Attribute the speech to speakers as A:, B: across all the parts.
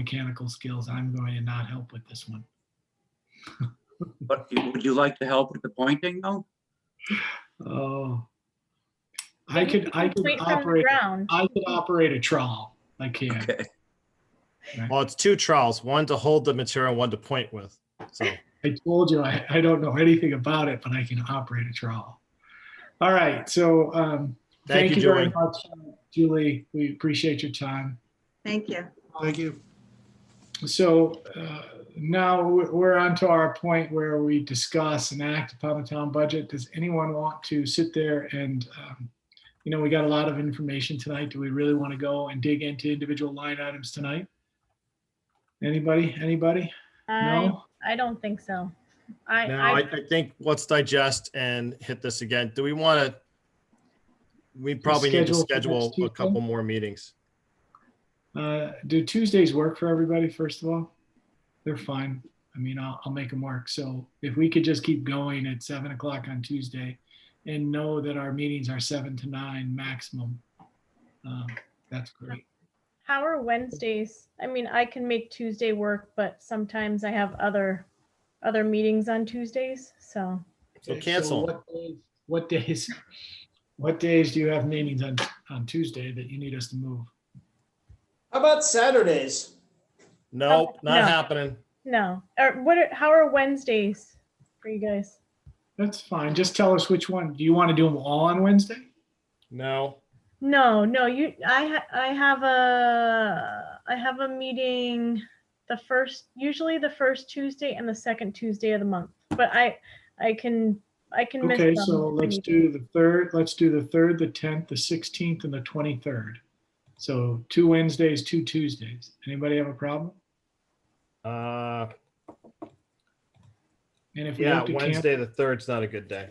A: mechanical skills, I'm going to not help with this one.
B: But you- would you like to help with the pointing though?
A: Oh. I
C: You
A: could, I could
C: complete from the
A: operate,
C: ground.
A: I could operate a trawl. I can.
B: Okay,
D: Well, it's two trowels, one to hold the material, one to point with. So
A: I told you, I, I don't know anything about it, but I can operate a trawl. All right, so, um,
D: Thank
A: thank
D: you,
A: you very
D: Julie.
A: much, Julie. We appreciate your time.
E: Thank you.
F: Thank you.
A: So uh, now we're we're on to our point where we discuss and act upon the town budget. Does anyone want to sit there and, um, you know, we got a lot of information tonight. Do we really want to go and dig into individual line items tonight? Anybody, anybody?
C: I,
A: No?
C: I don't think so. I,
D: now
C: I,
D: I, I think let's digest and hit this again. Do we want to? We probably need to
A: Schedule for
D: schedule
A: next
D: a
A: Tuesday?
D: couple more meetings.
A: Uh, Do Tuesdays work for everybody, first of all? They're fine. I mean, I'll, I'll make them work. So if we could just keep going at seven o'clock on Tuesday and know that our meetings are seven to nine maximum, um, that's great.
C: how are Wednesdays? I mean, I can make Tuesday work, but sometimes I have other, other meetings on Tuesdays, so.
D: So
A: Okay,
D: cancel.
A: what days- What days, what days do you have meetings on, on Tuesday that you need us to move?
G: How about Saturdays?
D: Nope, not
C: no.
D: happening.
C: No, or what, are- how are Wednesdays for you guys?
A: That's fine. Just tell us which one. Do you want to do them all on Wednesday?
D: No.
C: No, no, you, I, ha- I have a, I have a meeting the first, usually the first Tuesday and the second Tuesday of the month, but I, I can, I can miss
A: Okay,
C: some
A: so let's
C: meetings.
A: do the third, let's do the third, the tenth, the sixteenth, and the twenty-third. So two Wednesdays, two Tuesdays. Anybody have a problem?
D: Uh,
A: And if we
D: yeah,
A: have to cancel,
D: Wednesday the third's not a good day.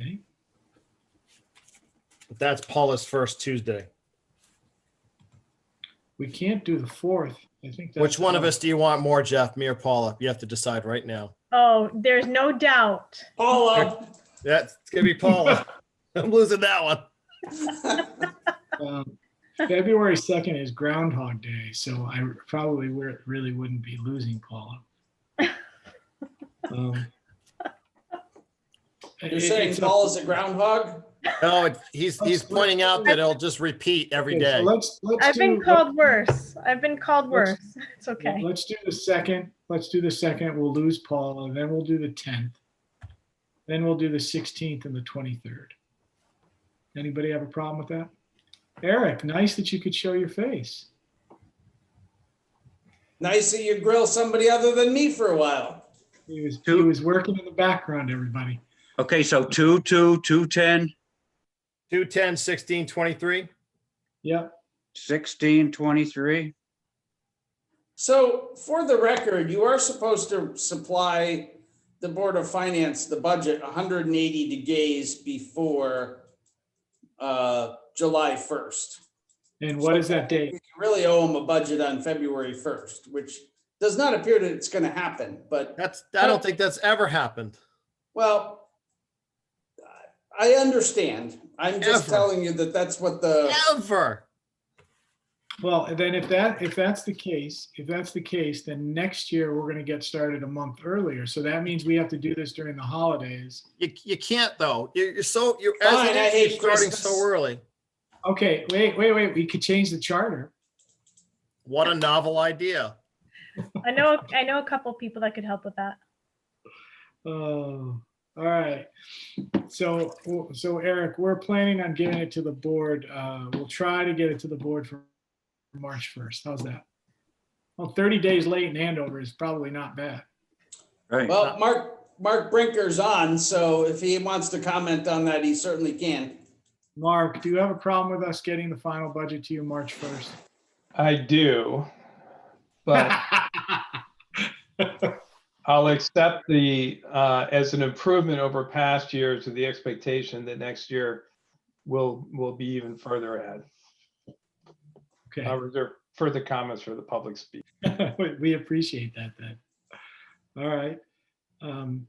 A: okay.
D: But that's Paula's first Tuesday.
A: we can't do the fourth. I think. that's-
D: Which one of us do you want more, Jeff? Me or Paula? You have to decide right now.
C: Oh, there's no doubt.
G: All of.
D: That's it's gonna be Paula. I'm losing that one.
A: Um, February second is Groundhog Day, so I probably were- really wouldn't be losing Paula. Um,
G: You're
A: it-
G: saying
A: it's a-
G: Paul is a groundhog?
D: No, it- he's he's pointing out that it'll just repeat every
A: okay, so
D: day.
A: Let's, let's.
C: I've been
A: do-
C: called worse. I've been called
A: Let's-
C: worse. It's okay.
A: Let's do the second, let's do the second, we'll lose Paul, and then we'll do the tenth. Then we'll do the sixteenth and the twenty-third. Anybody have a problem with that? Eric, nice that you could show your face.
G: Nice that you grill somebody other than me for a while.
A: He was, he was working in the background, everybody.
B: okay, so two, two, two, ten,
D: 210, 16, 23.
A: Yep,
B: sixteen, twenty-three.
G: So for the record, you are supposed to supply the Board of Finance, the budget, 180 days before uh, July 1st.
A: and what is that date?
G: We Really owe them a budget on February 1st, which does not appear that it's going to happen, but
D: That's I don't think that's ever happened.
G: Well, I understand. I'm just
D: Ever.
G: telling you that that's what the,
D: Ever.
A: Well, and then if that, if that's the case, if that's the case, then next year we're gonna get started a month earlier. So that means we have to do this during the holidays.
D: You you can't though. You're you're so you're
G: Fine,
D: as it
G: I
D: is,
G: hate
D: you're starting
G: Christmas.
D: so early.
A: Okay, wait, wait, wait, we could change the charter.
D: What a novel idea.
C: I know, I know a couple people that could help with that.
A: Oh, all right. So, so Eric, we're planning on getting it to the board. Uh, we'll try to get it to the board for March 1st. How's that? Well, 30 days late in Andover is probably not bad.
B: Right,
G: well, Mark, Mark Brinker's on, so if he wants to comment on that, he certainly can.
A: Mark, do you have a problem with us getting the final budget to you March 1st?
H: I do, but I'll accept the, uh, as an improvement over past years with the expectation that next year will, will be even further ahead.
A: Okay.
H: I'll reserve further comments for the public speak.
A: We- We appreciate that then. All right. Um,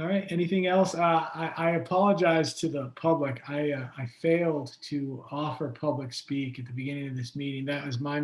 A: All right, anything else? Uh, I, I apologize to the public. I, uh, I failed to offer public speak at the beginning of this meeting. That was my